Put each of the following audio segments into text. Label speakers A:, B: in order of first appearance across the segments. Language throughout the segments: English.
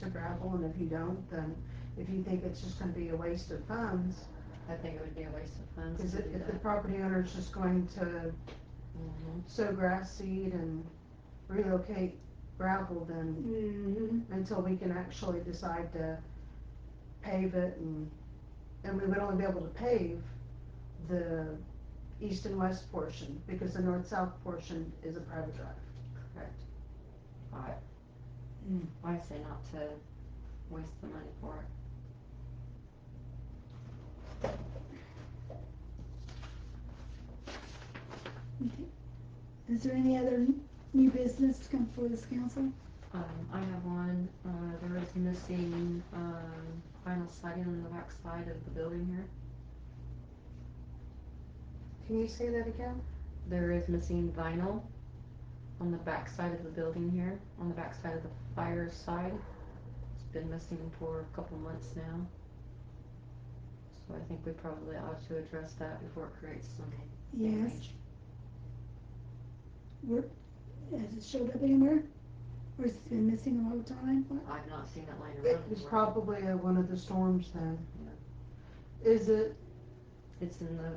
A: to gravel, and if you don't, then if you think it's just gonna be a waste of funds,
B: I think it would be a waste of funds.
A: is
B: to
A: it,
B: do
A: if the
B: that.
A: property owner's just going to
B: Mhm.
A: sow grass seed and relocate gravel, then
C: Mm-hmm.
A: until we can actually decide to pave it and, and we would only be able to pave the east and west portion, because the north-south portion is a private drive.
B: Correct.
C: Alright.
B: Mm, Why say not to waste the money for it?
C: Is there any other new business to come before this council?
B: Um, I have one, uh, there is missing, um, vinyl siding on the back side of the building here.
A: Can you say that again?
B: There is missing vinyl on the back side of the building here, on the back side of the fire side. It's been missing for a couple months now. So I think we probably ought to address that before it creates some
C: Yes,
B: damage.
C: has it showed up anywhere? Or has it been missing all the time? What?
B: I've not seen it laying around.
A: It was
B: anywhere.
A: probably uh, one of the storms then. Is it,
B: It's in the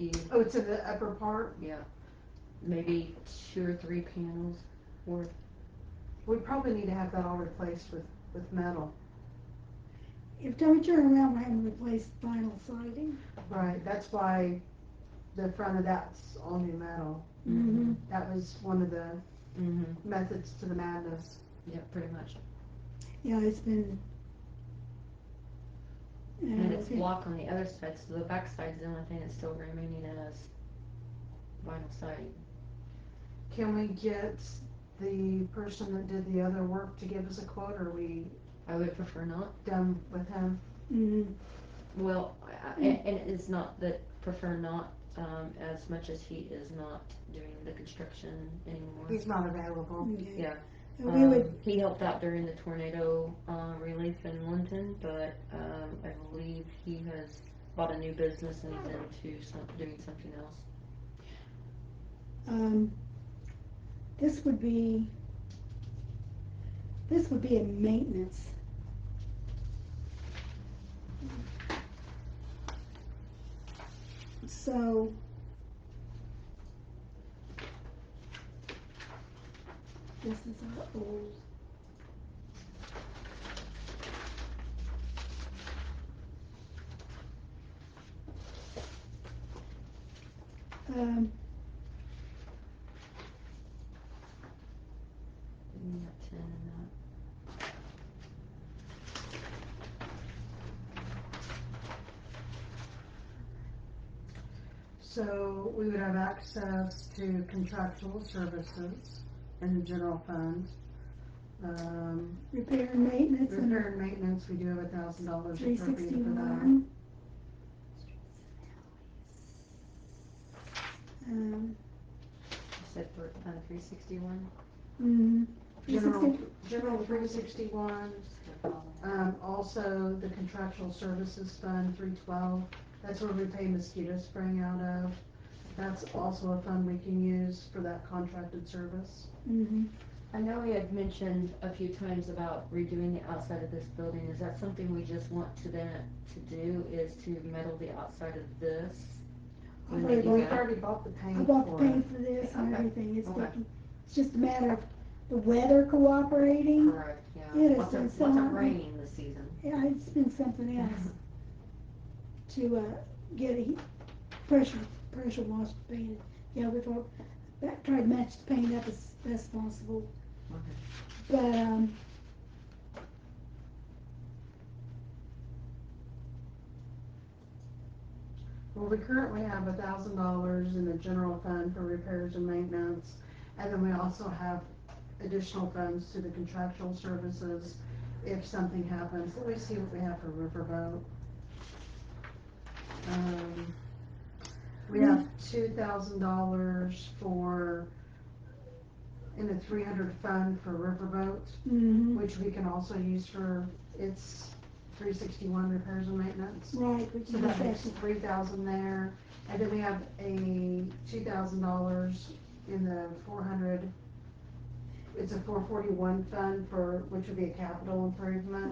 B: eaves
A: oh, it's in the upper part?
B: Yeah, maybe two or three panels worth.
A: We probably need to have that all replaced with, with metal.
C: If don't turn around, we're having to replace vinyl siding.
A: Right, that's why the front of that's all new metal.
C: Mm-hmm.
A: That was one of the
B: Mm-hmm.
A: methods to the madness.
B: Yeah, pretty much.
C: Yeah, it's been. Yeah,
B: And it's
C: been-
B: block on the other side, so the back side's the only thing that's still remaining as vinyl siding.
A: Can we get the person that did the other work to give us a quote, or are we
B: I would prefer not.
A: done with him?
C: Mhm.
B: Well, I- I- and, and it's not that prefer not, um, as much as he is not doing the construction anymore.
A: He's not available.
C: Okay.
B: Yeah.
C: And We would,
B: Um, he helped out during the tornado, uh, relief in Linton, but, um, I believe he has bought a new business and is into some, doing something else.
C: um, this would be, this would be a maintenance. So. This is our old. Um,
B: We got ten in that.
A: So we would have access to contractual services and the general fund. Um,
C: Repair and maintenance
A: repair
C: under
A: and maintenance, we do have a thousand dollars
C: three
A: appropriated for that.
C: sixty-one. Um,
B: You said for, uh, three sixty-one?
C: mm, three
A: General,
C: sixty,
A: general three sixty-one, um, also the contractual services fund, three twelve. That's where we pay mosquito spraying out of. That's also a fund we can use for that contracted service.
C: mm-hmm,
B: I know we had mentioned a few times about redoing the outside of this building. Is that something we just want to then, to do, is to metal the outside of this? When
C: I've
B: they
A: We've
B: do
C: already
B: that?
A: already bought the
C: I
A: paint
C: bought the
A: for it.
C: paint for this and
B: Okay.
C: everything, it's
B: Okay.
C: taking, it's just a matter of the weather cooperating.
B: Correct, yeah.
C: It is
B: What's it,
C: so
B: what's it
C: hard.
B: raining this season?
C: Yeah, it's been something
B: Uh-huh.
C: else to, uh, get a heat- pressure, pressure wash painted. Yeah, we've all, that, tried to match the paint up as best possible.
B: Okay.
C: But, um.
A: Well, we currently have a thousand dollars in the general fund for repairs and maintenance, and then we also have additional funds to the contractual services if something happens. Let me see what we have for riverboat. Um, we have two thousand dollars for, in the three hundred fund for riverboat,
C: mhm.
A: which we can also use for its three sixty-one repairs and maintenance.
C: Right, which is
A: So that makes
C: actually,
A: three thousand there, and then we have a two thousand dollars in the four hundred It's a four forty-one fund for, which would be a capital improvement.